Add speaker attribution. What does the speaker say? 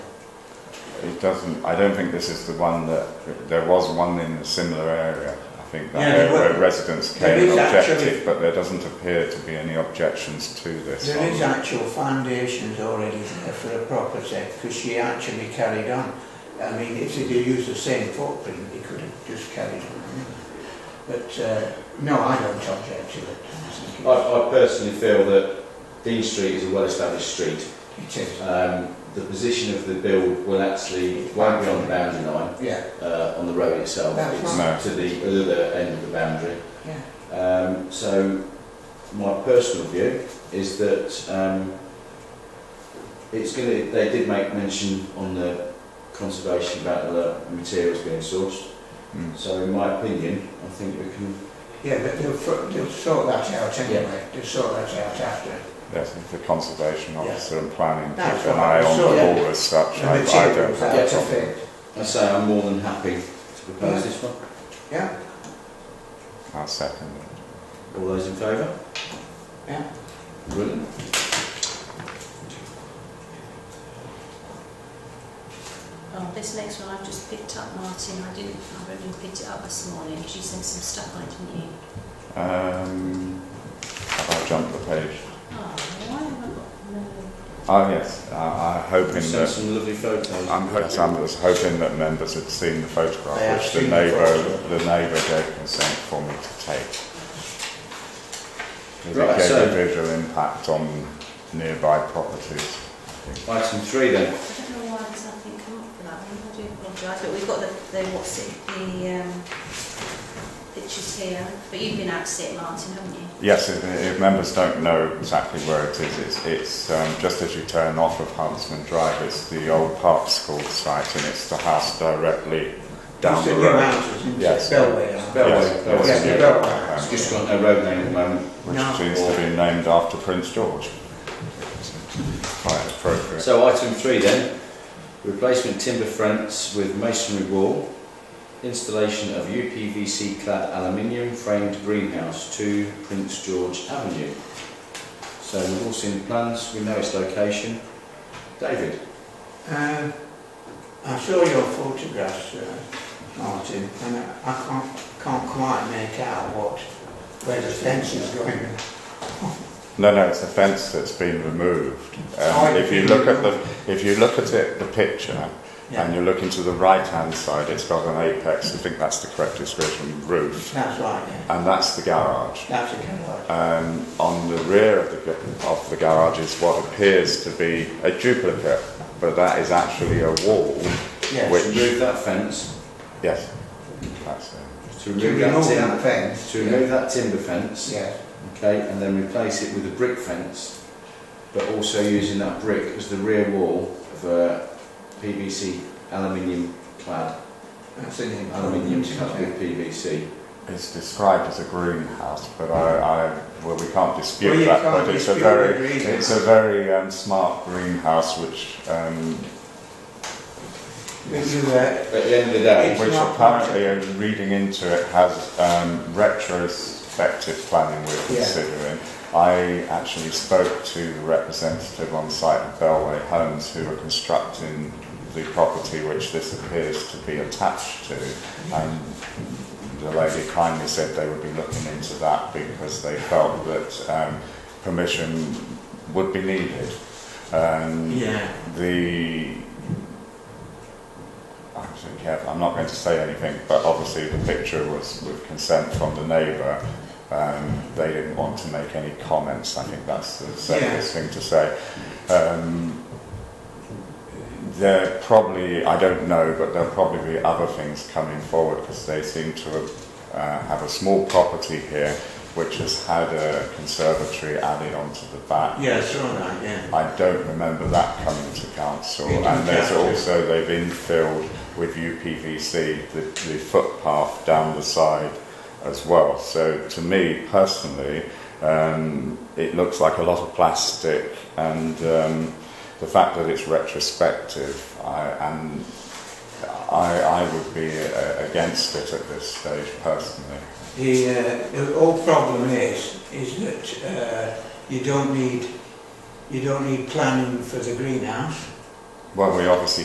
Speaker 1: it doesn't. I don't think this is the one that there was one in a similar area. I think that
Speaker 2: Yeah, there
Speaker 1: area
Speaker 2: were-
Speaker 1: where residents
Speaker 2: there
Speaker 1: came and
Speaker 2: is actually-
Speaker 1: objected, but there doesn't appear to be any objections to this.
Speaker 2: There is
Speaker 1: on-
Speaker 2: actual foundations already there for a property because she actually carried on. I mean, if they do use the same footprint, they could have just carried on. But uh, no, I don't object to it. I think
Speaker 3: I,
Speaker 1: Oh.
Speaker 3: I personally feel that Dean Street is a well-established street.
Speaker 2: It is, uh,
Speaker 3: Um, the position of the build will actually won't be on the boundary line
Speaker 2: yeah,
Speaker 3: uh, on the road itself.
Speaker 2: That's
Speaker 3: It's
Speaker 1: right.
Speaker 3: to the other end of the boundary.
Speaker 2: yeah.
Speaker 3: Um, so my personal view is that um, it's going to. They did make mention on the conservation about the materials being sourced.
Speaker 1: Mm.
Speaker 3: So in my opinion, I think we can.
Speaker 2: Yeah, but they'll, fo- they'll sort that out anyway. They'll sort that out after.
Speaker 1: Yes, the conservation
Speaker 2: Yeah.
Speaker 1: officer and planning
Speaker 2: That's
Speaker 1: keep an
Speaker 2: what
Speaker 1: eye
Speaker 2: I
Speaker 1: on
Speaker 2: saw,
Speaker 1: the
Speaker 2: yeah.
Speaker 1: wall as such.
Speaker 2: The
Speaker 1: I, I don't
Speaker 2: materials
Speaker 1: have a
Speaker 2: out of
Speaker 1: problem.
Speaker 2: it.
Speaker 3: I say I'm more than happy to propose this one.
Speaker 2: Yeah,
Speaker 1: I'll second it.
Speaker 3: All those in favour?
Speaker 2: yeah.
Speaker 3: Brilliant.
Speaker 4: Well, this next one I've just picked up, Martin. I didn't, I only picked it up this morning because you sent some stuff on, didn't you?
Speaker 1: Um, have I jumped the page?
Speaker 4: Oh, why have I got no?
Speaker 1: Oh yes, I, I'm
Speaker 3: We
Speaker 1: hoping
Speaker 3: sent
Speaker 1: that
Speaker 3: some lovely photos.
Speaker 1: I'm, hoping- I was hoping that members had seen the photograph,
Speaker 2: They have
Speaker 1: which the
Speaker 2: seen the
Speaker 1: neighbour
Speaker 2: photograph.
Speaker 1: the neighbour gave consent for me to take. Because
Speaker 3: Right,
Speaker 1: it gave
Speaker 3: so-
Speaker 1: a visual impact on nearby properties.
Speaker 3: Item three then.
Speaker 4: I don't know why there's nothing come up for that one. I do apologise, but we've got the, the what's it, the um, pictures here. But you've been out to see it, Martin, haven't you?
Speaker 1: Yes, if, if members don't know exactly where it is, it's, it's um, just as you turn off of Huntsman Drive, it's the old Park School site, and it's the house directly down
Speaker 2: It's
Speaker 1: the
Speaker 2: new
Speaker 1: road.
Speaker 2: houses, isn't it?
Speaker 1: Yes.
Speaker 2: Bellway,
Speaker 3: It's
Speaker 2: aren't they?
Speaker 3: Bellway.
Speaker 1: Yes,
Speaker 3: Bellway.
Speaker 2: Yeah,
Speaker 1: yeah.
Speaker 2: the Bellway.
Speaker 3: It's just got no road name at the moment.
Speaker 1: which
Speaker 2: No.
Speaker 1: seems to be named after Prince George. Quite appropriate.
Speaker 3: So item three then. Replacement timber fronts with masonry wall. Installation of UPVC clad aluminium framed greenhouse to Prince George Avenue. So we've all seen the plans, we know its location. David,
Speaker 2: Um, I saw your photographs, uh, Martin, and I, I can't, can't quite make out what, where the fence is going.
Speaker 1: No, no, it's a fence that's been removed. Um,
Speaker 2: Oh,
Speaker 1: if you look at the, if you look at it, the picture, and
Speaker 2: Yeah,
Speaker 1: you look into the right-hand side, it's got an apex. I think that's the correct description. Roof,
Speaker 2: that's right, yeah.
Speaker 1: and that's the garage.
Speaker 2: That's a garage.
Speaker 1: Um, on the rear of the, ga- of the garage is what appears to be a duplicate, but that is actually a wall.
Speaker 2: Yes.
Speaker 1: Which-
Speaker 3: remove that fence.
Speaker 1: Yes, that's uh, it.
Speaker 3: To
Speaker 2: To
Speaker 3: remove that
Speaker 2: remove that
Speaker 3: timber,
Speaker 2: fence.
Speaker 3: to remove that timber fence.
Speaker 2: Yes,
Speaker 3: okay, and then replace it with a brick fence, but also using that brick as the rear wall of a PVC aluminium clad,
Speaker 2: that's an
Speaker 3: aluminium
Speaker 2: improvement.
Speaker 3: clad
Speaker 2: isn't
Speaker 3: with
Speaker 2: it?
Speaker 3: PVC.
Speaker 1: It's described as a greenhouse, but I, I well, we can't dispute
Speaker 2: Well, you
Speaker 1: that.
Speaker 2: can't
Speaker 1: but it's a
Speaker 2: dispute
Speaker 1: very,
Speaker 2: the greenhouse.
Speaker 1: it's a very um, smart greenhouse, which um,
Speaker 2: But you, uh,
Speaker 3: At the end of the day,
Speaker 2: It's
Speaker 1: which
Speaker 2: not
Speaker 1: apparently, uh, reading into it, has um, retrospective planning we're
Speaker 2: Yeah.
Speaker 1: considering. I actually spoke to the representative on site of Bellway Homes who are constructing the property which this appears to be attached to, and the lady kindly said they would be looking into that because they felt that um, permission would be needed. Um,
Speaker 2: yeah,
Speaker 1: the actually, yeah, I'm not going to say anything, but obviously the picture was with consent from the neighbour. Um, they didn't want to make any comments. I think that's the safest thing to say. Um, there probably, I don't know, but there'll probably be other things coming forward because they seem to have, uh, have a small property here which has had a conservatory added onto the back.
Speaker 2: yeah, I saw that, yeah.
Speaker 1: I don't remember that coming to council.
Speaker 2: It didn't
Speaker 1: And there's
Speaker 2: count.
Speaker 1: also, they've infilled with UPVC the, the footpath down the side as well. So to me personally, um, it looks like a lot of plastic and um, the fact that it's retrospective I, and I, I would be uh, against it at this stage personally.
Speaker 2: The, uh, the whole problem is, is that uh, you don't need, you don't need planning for the greenhouse.
Speaker 1: Well, we obviously